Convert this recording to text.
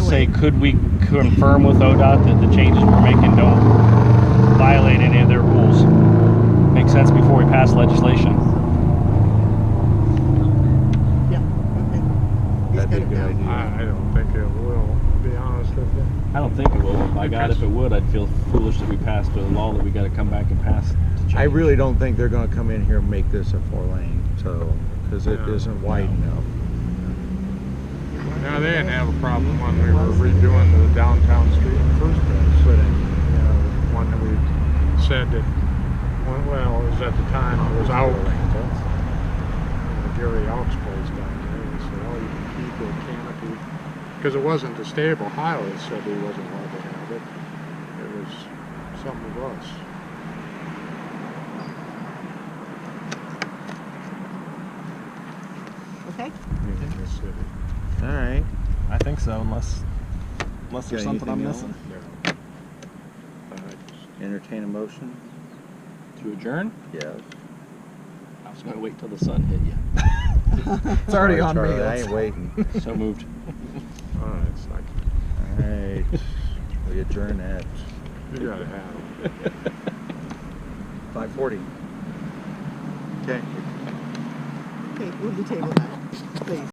say, could we confirm with ODOT that the changes we're making don't violate any of their rules? Make sense before we pass legislation. Yeah, okay. He's got That'd be a it good down. idea. I, I don't think it will, to be honest with you. I don't think it will. By God, if it would, I'd feel foolish that we passed a law that we gotta come back and pass to change. I really don't think they're gonna come in here and make this a four lane, so, cause it No. isn't wide enough. Now, they didn't have a problem when we were redoing the downtown street in the first place, but, you know, one that we said that, well, well, it was at the time, it was out. Gary Alks place down there, and said, oh, you can keep the canopy, because it wasn't a stable highway, it said he wasn't allowed to have it. It was something of us. Okay, in this city. Alright, I think so, unless, unless there's Got something I'm anything else? missing. Yeah. Uh, entertain a motion? To adjourn? Yes. I was gonna wait till the sun hit you. It's already on me. I ain't waiting. So moved. All right, so I, Alright, we adjourn at you gotta have it. five forty. Okay. okay, we'll table that, please.